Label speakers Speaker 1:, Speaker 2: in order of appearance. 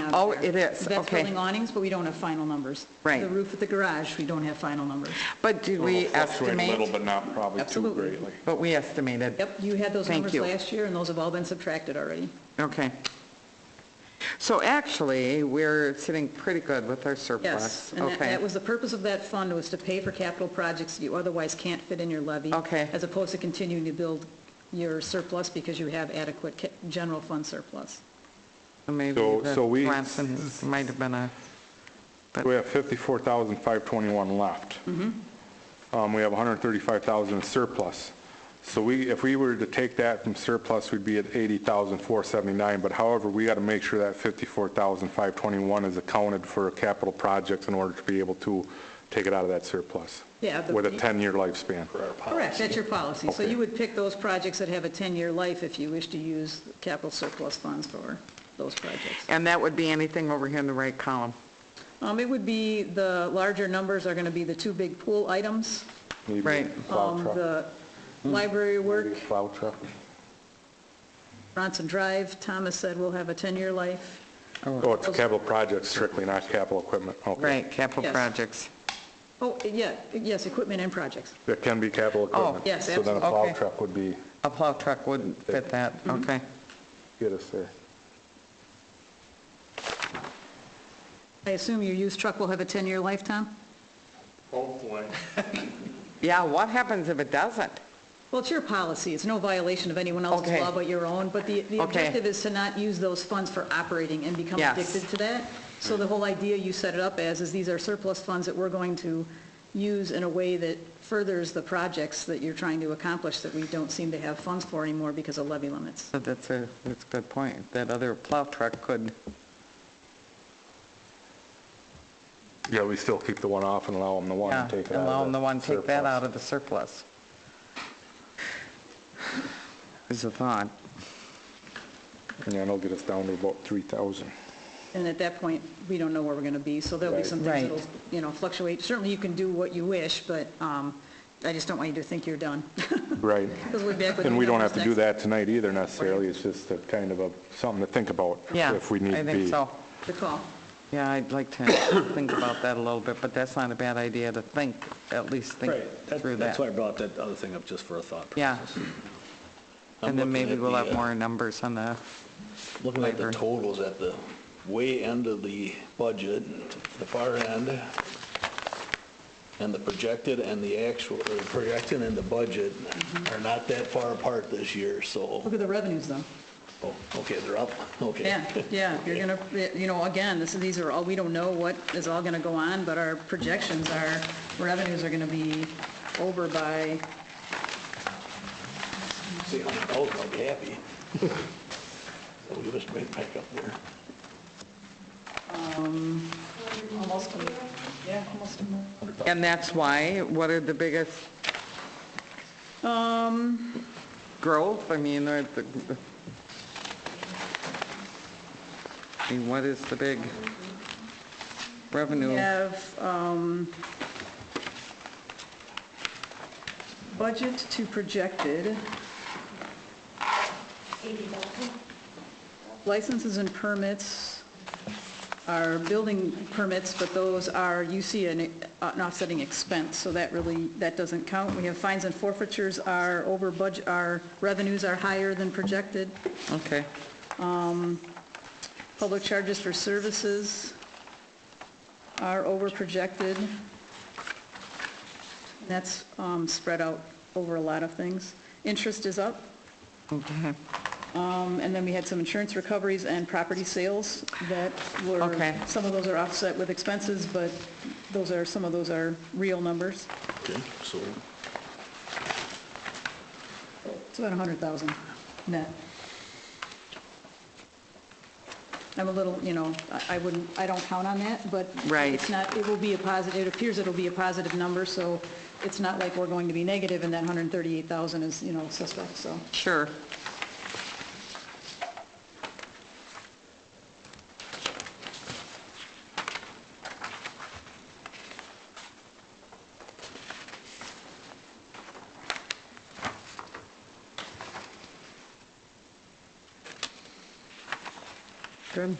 Speaker 1: out
Speaker 2: Oh,
Speaker 1: there.
Speaker 2: it is,
Speaker 1: That's
Speaker 2: okay.
Speaker 1: building awnings, but we don't have final numbers.
Speaker 2: Right.
Speaker 1: The roof of the garage, we don't have final numbers.
Speaker 2: But did we
Speaker 3: It'll Fluctuate a little,
Speaker 2: estimate?
Speaker 3: but not probably too
Speaker 1: Absolutely.
Speaker 3: greatly.
Speaker 2: But we estimated.
Speaker 1: Yep, you had those
Speaker 2: Thank
Speaker 1: numbers
Speaker 2: you.
Speaker 1: last year, and those have all been subtracted already.
Speaker 2: Okay. So actually, we're sitting pretty good with our surplus.
Speaker 1: Yes, and that-
Speaker 2: Okay.
Speaker 1: that was the purpose of that fund, was to pay for capital projects that you otherwise can't fit in your levy.
Speaker 2: Okay.
Speaker 1: As opposed to continuing to build your surplus because you have adequate ca- general fund surplus.
Speaker 2: Maybe
Speaker 3: So- so
Speaker 2: the
Speaker 3: we-
Speaker 2: Bronson might have been a,
Speaker 3: We have 54,521 left.
Speaker 1: Mm-hmm.
Speaker 3: Um, We have 135,000 in surplus. So we, if we were to take that from surplus, we'd be at 80,479, but however, we got to make sure that 54,521 is accounted for capital projects in order to be able to take it out of that surplus.
Speaker 1: Yeah, the-
Speaker 3: With a 10-year lifespan.
Speaker 1: Correct, that's your policy. So
Speaker 3: Okay.
Speaker 1: you would pick those projects that have a 10-year life if you wish to use capital surplus funds for those projects.
Speaker 2: and that would be anything over here in the right column.
Speaker 1: Um, It would be, the larger numbers are going to be the two big pool items,
Speaker 3: Maybe
Speaker 2: Right.
Speaker 3: plow
Speaker 1: um,
Speaker 3: truck.
Speaker 1: the library work,
Speaker 3: Maybe Plow truck.
Speaker 1: Bronson Drive, Thomas said will have a 10-year life.
Speaker 3: Oh, it's capital projects strictly, not capital equipment. Okay.
Speaker 2: Right, capital
Speaker 1: Yes.
Speaker 2: projects.
Speaker 1: Oh, yeah, yes, equipment and projects.
Speaker 3: There can be capital equipment.
Speaker 1: yes,
Speaker 3: So then a
Speaker 2: Oh, absolutely.
Speaker 3: plow
Speaker 2: Okay.
Speaker 3: truck would be,
Speaker 2: A plow truck wouldn't fit that,
Speaker 1: Mm-hmm.
Speaker 2: okay.
Speaker 3: get us there.
Speaker 1: I assume your used truck will have a 10-year life, Tom?
Speaker 4: Hopefully.
Speaker 2: Yeah, what happens if it doesn't?
Speaker 1: Well, it's your policy, it's no violation of anyone else's
Speaker 2: Okay.
Speaker 1: law but your own, but the, the
Speaker 2: Okay.
Speaker 1: objective is to not use those funds for operating and become
Speaker 2: Yes.
Speaker 1: addicted to that. So the whole idea you set it up as is these are surplus funds that we're going to use in a way that furthers the projects that you're trying to accomplish that we don't seem to have funds for anymore because of levy limits.
Speaker 2: So that's a, that's a good point. That other plow truck could,
Speaker 3: Yeah, we still keep the one off and allow them the one
Speaker 2: yeah,
Speaker 3: and take it out. of
Speaker 2: allow them the one, take that
Speaker 3: surplus.
Speaker 2: out of the surplus. Is a thought.
Speaker 3: Yeah, and it'll get us down to about 3,000.
Speaker 1: And at that point, we don't know where we're going to be, so there'll be
Speaker 3: Right.
Speaker 1: some
Speaker 2: Right.
Speaker 1: things that'll, you know, fluctuate. Certainly, you can do what you wish, but um, I just don't want you to think you're done.
Speaker 3: Right.
Speaker 1: 'Cause we'll be back with
Speaker 3: And we don't have
Speaker 1: numbers
Speaker 3: to do
Speaker 1: next-
Speaker 3: that tonight either necessarily. It's just a kind of a, something to think about
Speaker 2: Yeah,
Speaker 3: if we need
Speaker 2: I
Speaker 3: to be.
Speaker 2: think so.
Speaker 1: Good call.
Speaker 2: Yeah, I'd like to think about that a little bit, but that's not a bad idea to think, at least think
Speaker 4: Right, that-
Speaker 2: through
Speaker 4: that's why I
Speaker 2: that.
Speaker 4: brought that other thing up, just for a thought
Speaker 2: Yeah.
Speaker 4: process. I'm
Speaker 2: And then
Speaker 4: looking
Speaker 2: maybe
Speaker 4: at
Speaker 2: we'll
Speaker 4: the,
Speaker 2: have
Speaker 4: uh,
Speaker 2: more numbers on the,
Speaker 4: Looking at the
Speaker 2: Library.
Speaker 4: totals at the way end of the budget, the far end, and the projected and the actual, or the projected and the budget
Speaker 2: Mm-hmm.
Speaker 4: are not that far apart this year, so,
Speaker 1: Look at the revenues, though.
Speaker 4: oh, okay, they're up, okay.
Speaker 1: Yeah, yeah, you're gonna, you know, again, this, these are all, we don't know what is all gonna go on, but our projections are, revenues are gonna be over by,
Speaker 4: See, I'm, I'll be happy. So we just right back up there.
Speaker 1: almost, a- yeah, almost. a mil-
Speaker 2: and that's why, what are the biggest? Um.
Speaker 4: Um,
Speaker 2: Growth, I mean, or the. I mean, what is the big revenue?
Speaker 1: We have, um, budget to projected. Licenses and permits are building permits, but those are, you see an uh, an offsetting expense, so that really, that doesn't count. We have fines and forfeitures are over budget, our revenues are higher than projected.
Speaker 2: Okay,
Speaker 1: Public charges for services are over projected. And That's um, spread out over a lot of things. Interest is up. Um, And then we had some insurance recoveries and property sales that were,
Speaker 2: Okay.
Speaker 1: some of those are offset with expenses, but those are, some of those are real numbers.
Speaker 4: Okay, so,
Speaker 1: It's about 100,000 net. I'm a little, you know, I- I wouldn't, I don't count on that, but
Speaker 2: Right.
Speaker 1: it's not, it will be a positive, it appears it'll be a positive number, so it's not like we're going to be negative, and that 138,000 is, you know, suspect, so.
Speaker 2: sure. Good.